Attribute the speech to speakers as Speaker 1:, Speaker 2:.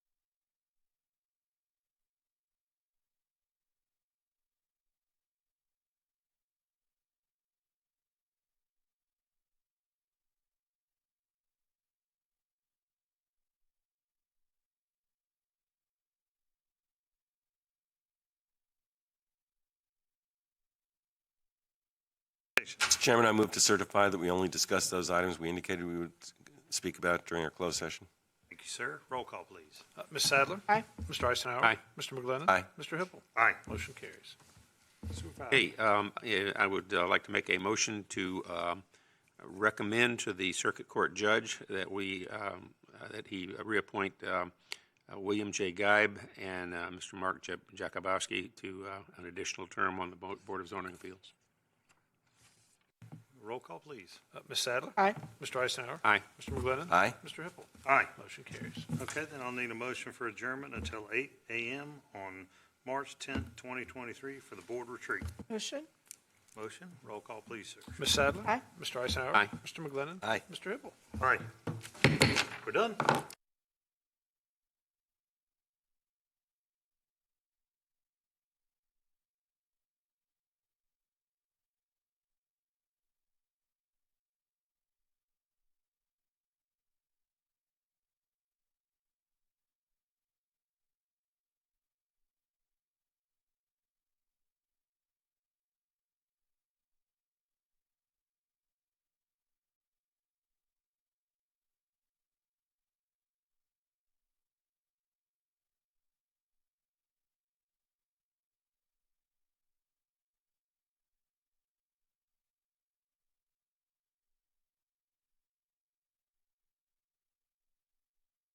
Speaker 1: Mr. Chairman, I move to certify that we only discussed those items we indicated we would speak about during our closed session.
Speaker 2: Thank you, sir. Roll call, please. Uh, Ms. Sadler?
Speaker 3: Aye.
Speaker 2: Mr. Eisenhower?
Speaker 4: Aye.
Speaker 2: Mr. McGlinnan?
Speaker 1: Aye.
Speaker 2: Mr. Hippel?
Speaker 4: Aye.
Speaker 2: Motion carries. Supervisor,
Speaker 4: Hey, um, yeah, I would uh, like to make a motion to um, recommend to the circuit court judge that we, um, uh, that he reappoint um, uh, William J. Geib and uh, Mr. Mark Ja- Jakubowski to uh, an additional term on the Bo- Board of Zoning Appeals.
Speaker 2: roll call, please. Uh, Ms. Sadler?
Speaker 3: Aye.
Speaker 2: Mr. Eisenhower?
Speaker 4: Aye.
Speaker 2: Mr. McGlinnan?
Speaker 1: Aye.
Speaker 2: Mr. Hippel?
Speaker 5: Aye.
Speaker 2: Motion carries.
Speaker 5: Okay, then I'll need a motion for adjournment until eight AM on March tenth, twenty twenty-three for the board retreat.
Speaker 3: Motion?
Speaker 5: Motion, roll call, please, sir.
Speaker 2: Ms. Sadler?
Speaker 3: Aye.
Speaker 2: Mr. Eisenhower?
Speaker 4: Aye.
Speaker 2: Mr. McGlinnan?
Speaker 1: Aye.
Speaker 2: Mr. Hippel?
Speaker 5: All right. We're done.